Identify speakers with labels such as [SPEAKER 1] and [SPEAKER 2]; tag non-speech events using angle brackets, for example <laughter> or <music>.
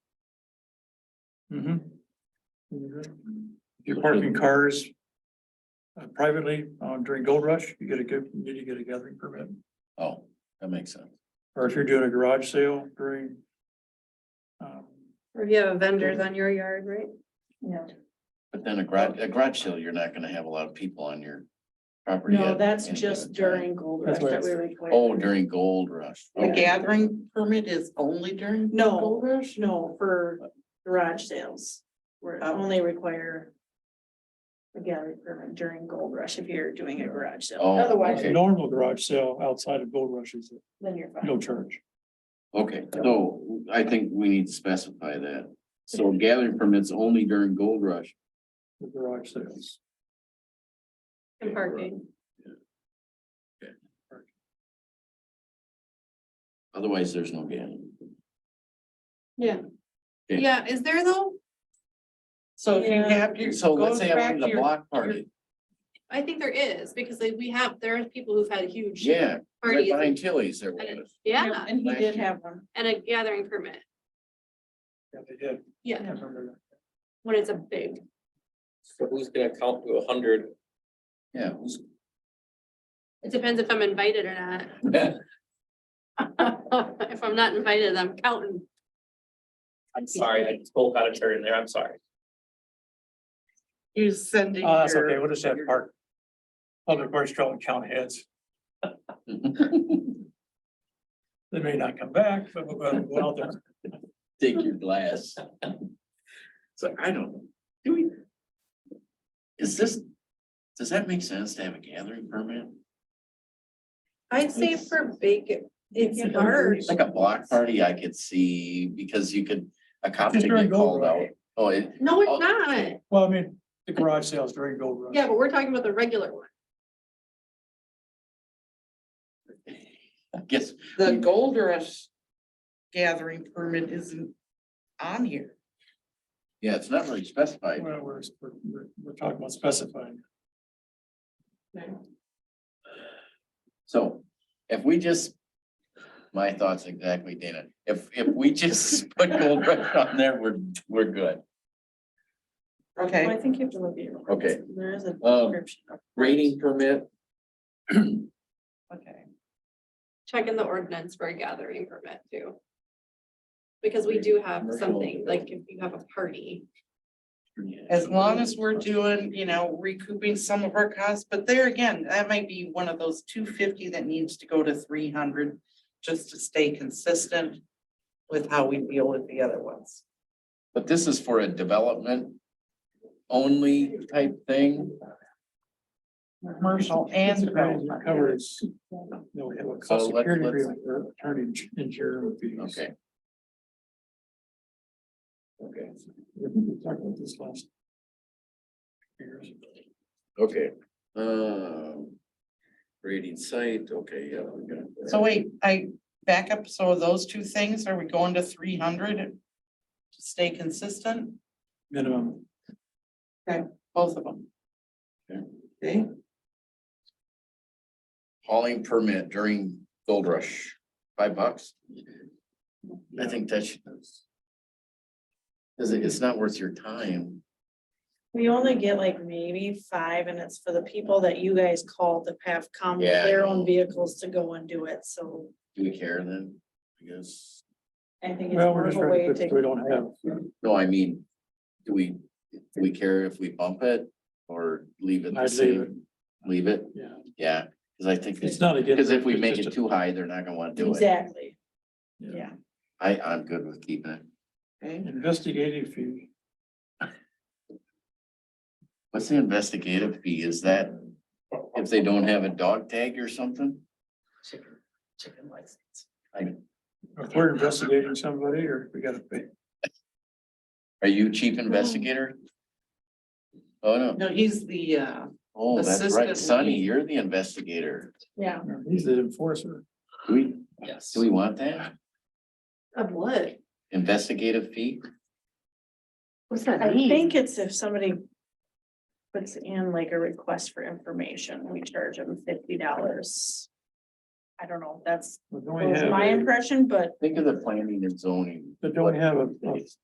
[SPEAKER 1] You're parking cars uh, privately uh, during gold rush, you get a good, you need to get a gathering permit.
[SPEAKER 2] Oh, that makes sense.
[SPEAKER 1] Or if you're doing a garage sale during um,
[SPEAKER 3] Or if you have vendors on your yard, right?
[SPEAKER 4] Yeah,
[SPEAKER 2] But then a garage, a garage sale, you're not gonna have a lot of people on your property.
[SPEAKER 4] no,
[SPEAKER 2] at
[SPEAKER 4] that's
[SPEAKER 2] any
[SPEAKER 4] just
[SPEAKER 2] given time.
[SPEAKER 4] during gold rush
[SPEAKER 1] That's
[SPEAKER 4] that we
[SPEAKER 1] what
[SPEAKER 4] require.
[SPEAKER 2] Oh, during gold rush.
[SPEAKER 5] The
[SPEAKER 2] Okay.
[SPEAKER 5] gathering permit is only during?
[SPEAKER 4] No, no, for garage sales, we're
[SPEAKER 5] Oh.
[SPEAKER 4] only require. A gallery permit during gold rush if you're doing a garage sale,
[SPEAKER 2] Oh,
[SPEAKER 4] otherwise,
[SPEAKER 1] a
[SPEAKER 2] okay.
[SPEAKER 1] normal garage sale outside of gold rushes,
[SPEAKER 4] then you're fine.
[SPEAKER 1] no charge.
[SPEAKER 2] Okay, so I think we need to specify that. So gathering permits only during gold rush.
[SPEAKER 1] for garage sales.
[SPEAKER 3] And parking.
[SPEAKER 2] Otherwise, there's no gathering. Yeah.
[SPEAKER 3] Yeah, is there though?
[SPEAKER 5] So if you
[SPEAKER 4] Yeah.
[SPEAKER 5] have your.
[SPEAKER 2] So let's
[SPEAKER 5] goes
[SPEAKER 2] say I'm
[SPEAKER 5] back
[SPEAKER 2] in
[SPEAKER 5] to
[SPEAKER 2] the
[SPEAKER 5] your-
[SPEAKER 2] block party.
[SPEAKER 3] I think there is, because like, we have, there are people who've had huge
[SPEAKER 2] Yeah, right
[SPEAKER 3] parties.
[SPEAKER 2] behind Tilly's there
[SPEAKER 3] and it-
[SPEAKER 2] was.
[SPEAKER 3] Yeah,
[SPEAKER 4] And he
[SPEAKER 2] last
[SPEAKER 4] did
[SPEAKER 2] year.
[SPEAKER 4] have one,
[SPEAKER 3] and a gathering permit,
[SPEAKER 1] Yeah, they did. I
[SPEAKER 3] yeah,
[SPEAKER 1] remember that.
[SPEAKER 3] when it's a big,
[SPEAKER 6] So who's gonna count to a hundred?
[SPEAKER 2] Yeah. who's-
[SPEAKER 3] it depends if I'm invited or not. If I'm not <laughs> invited, I'm counting.
[SPEAKER 6] I'm sorry, I spoke out of turn there, I'm sorry.
[SPEAKER 5] You're sending.
[SPEAKER 1] Oh, that's
[SPEAKER 5] your-
[SPEAKER 1] okay, we'll just have park. Public works don't count heads,
[SPEAKER 2] <laughs>
[SPEAKER 1] they may not come back, but we'll go out there.
[SPEAKER 2] Take your glass. <laughs> So I don't, know. do we? Is this, does that make sense to have a gathering permit?
[SPEAKER 3] I'd say for big,
[SPEAKER 4] It's
[SPEAKER 3] it's large.
[SPEAKER 2] Like a block party I could see because you could, a cop
[SPEAKER 1] Just
[SPEAKER 2] could
[SPEAKER 1] during
[SPEAKER 2] get
[SPEAKER 1] Gold
[SPEAKER 2] called out. Oh, it,
[SPEAKER 3] No,
[SPEAKER 2] Oh.
[SPEAKER 3] it's not,
[SPEAKER 1] Well, I mean, the garage sales during gold rush.
[SPEAKER 3] yeah, but we're talking about the regular one.
[SPEAKER 2] I guess,
[SPEAKER 5] The gold rush gathering permit isn't on here.
[SPEAKER 2] yeah, it's not really specified.
[SPEAKER 1] Well, we're, we're- we're, we're talking about specifying.
[SPEAKER 2] So if we just, my thoughts exactly, Dana, if, if we just <laughs> put Gold Rush on there, we're, we're good.
[SPEAKER 4] Well, I
[SPEAKER 5] Okay,
[SPEAKER 4] think you have to look at your.
[SPEAKER 2] Okay.
[SPEAKER 4] There is a
[SPEAKER 2] Um,
[SPEAKER 4] description. of-
[SPEAKER 2] Rating permit,
[SPEAKER 5] okay.
[SPEAKER 3] check in the ordinance for a gathering permit too. Because we do have something, like if you have a party,
[SPEAKER 5] As long as we're doing, you know, recouping some of our costs, but there again, that might be one of those two fifty that needs to go to three hundred. Just to stay consistent with how we deal with the other ones.
[SPEAKER 2] But this is for a development only type thing,
[SPEAKER 5] Commercial and development.
[SPEAKER 1] Covers. No, we have a cost
[SPEAKER 2] So let-
[SPEAKER 1] security
[SPEAKER 2] let's-
[SPEAKER 1] agreement for attorney and jury fees.
[SPEAKER 2] okay,
[SPEAKER 1] Okay. We talked about this last. years.
[SPEAKER 2] okay, um. Rating site, okay, yeah. we got that.
[SPEAKER 5] So wait, I back up, so those two things, are we going to three hundred? To stay consistent,
[SPEAKER 1] Minimum.
[SPEAKER 5] both of them? Okay.
[SPEAKER 2] Hauling permit during gold rush, five bucks? I think that should. Cause it- it's not worth your time.
[SPEAKER 4] We only get like maybe five and it's for the people that you guys called that have come with
[SPEAKER 2] Yeah, I
[SPEAKER 4] their
[SPEAKER 2] know.
[SPEAKER 4] own vehicles to go and do it, so
[SPEAKER 2] Do we care then? I guess.
[SPEAKER 4] I think it's
[SPEAKER 1] Well, we're
[SPEAKER 4] more of
[SPEAKER 1] just
[SPEAKER 4] a
[SPEAKER 1] trying
[SPEAKER 4] way
[SPEAKER 1] to, fix- we
[SPEAKER 4] to.
[SPEAKER 1] don't have,
[SPEAKER 2] No, I mean, do we, do we care if we bump it or leave it the
[SPEAKER 1] I'd leave it,
[SPEAKER 2] same? Leave it,
[SPEAKER 1] yeah.
[SPEAKER 2] yeah, cause I think,
[SPEAKER 1] It's not against.
[SPEAKER 2] because if we make it too high, they're not gonna wanna do it.
[SPEAKER 4] Exactly, yeah.
[SPEAKER 2] I, I'm good with keeping it.
[SPEAKER 5] Okay.
[SPEAKER 1] Investigative fee.
[SPEAKER 2] What's the investigative fee? Is that if they don't have a dog tag or something?
[SPEAKER 5] Chicken, chicken license.
[SPEAKER 1] If we're investigating somebody or we gotta pay.
[SPEAKER 2] Are you chief investigator? Oh, no.
[SPEAKER 5] No, he's the, uh,
[SPEAKER 2] Oh, that's right.
[SPEAKER 5] Assistant
[SPEAKER 2] Sonny,
[SPEAKER 5] lead.
[SPEAKER 2] you're the investigator.
[SPEAKER 4] Yeah.
[SPEAKER 1] He's the enforcer.
[SPEAKER 2] Do we,
[SPEAKER 6] Yes.
[SPEAKER 2] do we want that?
[SPEAKER 3] of what?
[SPEAKER 2] Investigative fee?
[SPEAKER 3] What's that
[SPEAKER 4] I think it's if somebody puts in like a request for information, we charge them fifty dollars. I don't know, that's
[SPEAKER 1] But don't we
[SPEAKER 4] was my
[SPEAKER 1] have,
[SPEAKER 4] impression, but
[SPEAKER 2] Think of the planning and zoning.
[SPEAKER 1] but don't we have a, a